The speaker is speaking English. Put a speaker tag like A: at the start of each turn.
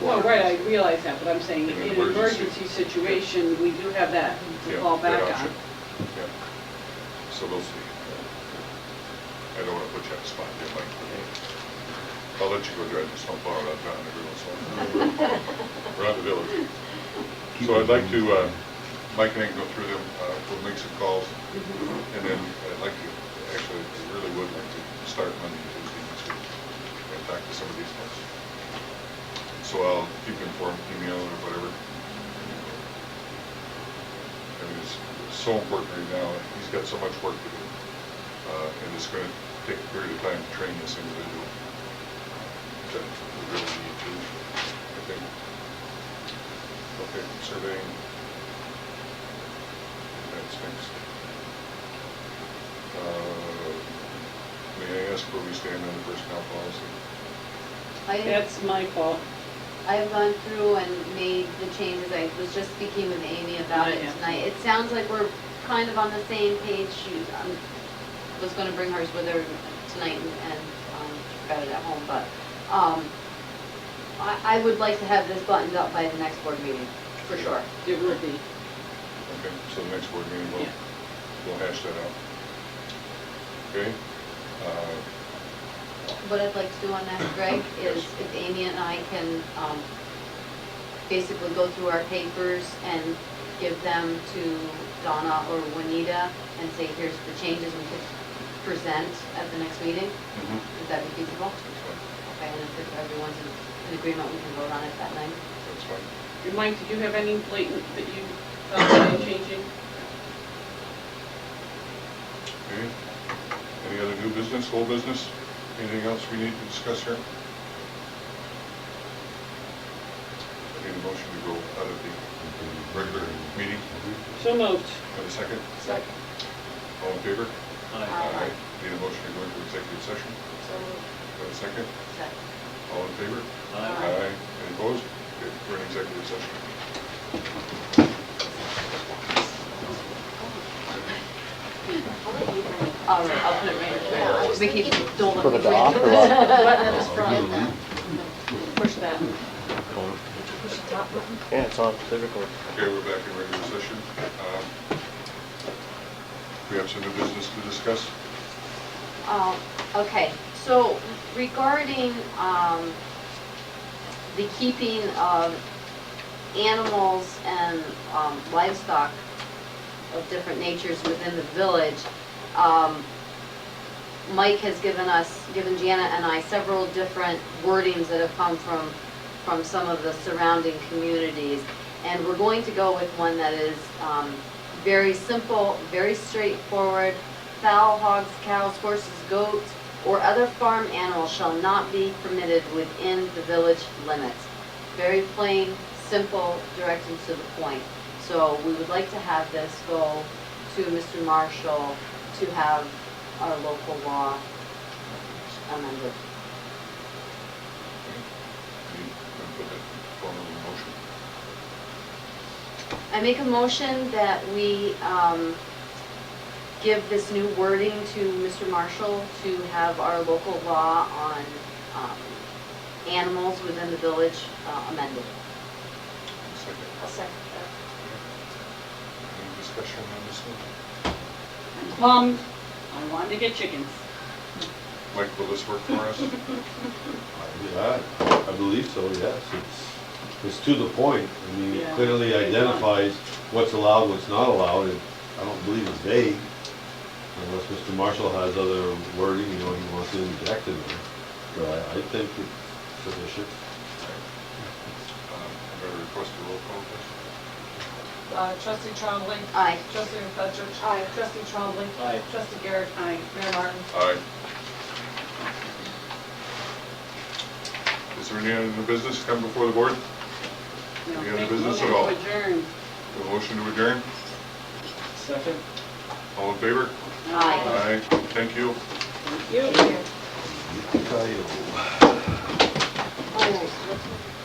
A: Well, right, I realize that, but I'm saying,
B: In an
A: in an
B: emergency.
A: emergency situation, we do have that to
B: Yeah,
A: fall back
B: that
A: on.
B: option. Yeah. So those, I don't want to put you on the spot, there, Mike. I'll let you go drive the snowplow around town every once in a while. Around the village. So I'd like to, uh, Mike and I can go through them, uh, we'll make some calls, and then I'd like to, actually, I really would like to start Monday, Tuesday, next week, and talk to some of these folks. So I'll keep you informed, email or whatever. I mean, it's it's so important right now, and he's got so much work to do, uh, and it's gonna take a period of time to train this individual. That we really need to, I think. Okay, surveying. That's next. Uh, May I ask where we stand on the personnel policy?
C: I,
A: That's my fault.
C: I've gone through and made the changes, I was just speaking with Amy about it
A: Yeah.
C: tonight. It sounds like we're kind of on the same page, she, um, was gonna bring hers with her tonight and, and, um, she forgot it at home, but, um, I, I would like to have this buttoned up by the next board meeting, for sure.
A: It would be.
B: Okay, so the next board meeting, we'll,
A: Yeah.
B: we'll hash that out. Okay? Uh,
C: What I'd like to do on that, Greg, is if Amy and I can, um, basically go through our papers and give them to Donna or Juanita and say, here's the changes we could present at the next meeting,
B: mhm,
C: Would that be feasible?
B: That's fine,
C: Okay, and if everyone's in- in agreement, we can vote on it that night.
B: that's fine.
A: And Mike, did you have any blatant that you thought were changing?
B: Okay. Any other new business, whole business? Anything else we need to discuss here? Need a motion to go out of the regular meeting?
A: So moved.
B: Have a second?
A: Second.
B: All in favor?
C: Aye.
B: Need a motion to go into executive session? Have a second?
C: So,
B: All in favor?
C: Aye.
B: Any opposed? Okay, We're in executive session.
C: All right, I'll put it right
D: I
C: there.
D: was
C: Vicky,
D: thinking-
C: don't let me.
E: For the dock or
C: forget.
E: what?
D: Button at the front.
A: Push that.
D: Push the top button.
E: Yeah, it's on physical.
B: Okay, we're back in regular session. Um, We have some new business to discuss.
C: Um, Okay, so regarding um, the keeping of animals and um, livestock of different natures within the village, um, Mike has given us, given Jana and I several different wordings that have come from, from some of the surrounding communities. And we're going to go with one that is um, very simple, very straightforward. Fowl, hogs, cows, horses, goats, or other farm animals shall not be permitted within the village limits. Very plain, simple, direct and to the point. So we would like to have this go to Mr. Marshall to have our local law amended.
B: We can put that formal in motion.
C: I make a motion that we um, give this new wording to Mr. Marshall to have our local law on um, animals within the village uh, amended.
B: Second.
D: I'll second
B: Any discussion on this one?
A: I'm bummed. I wanted to get chickens.
B: Mike, will this work for us?
F: Yeah, I believe so, yes. It's, it's to the point. I mean, it
A: Yeah.
F: clearly identifies what's allowed, what's not allowed, and I don't believe it's vague. Unless Mr. Marshall has other wording, you know, he wants to inject in there. But I, I think it's sufficient.
B: Um, I'm going to request a roll call, please.
D: that. Uh, Trustee Trombley.
C: Aye.
D: Trustee McFetrich. Aye. Trustee Trombley.
E: Aye.
D: Trustee Garrett. Aye. Mayor Martin.
B: Aye. Is there any other new business to come before the board?
A: You know,
B: Any other
A: make a
B: business at
A: motion to
B: all?
A: Adjourn.
B: A motion to adjourn?
E: Second?
B: All in favor?
C: Aye.
B: Aye. Thank you.
A: Thank you.
F: Yippee-ki-yo.
C: Oh,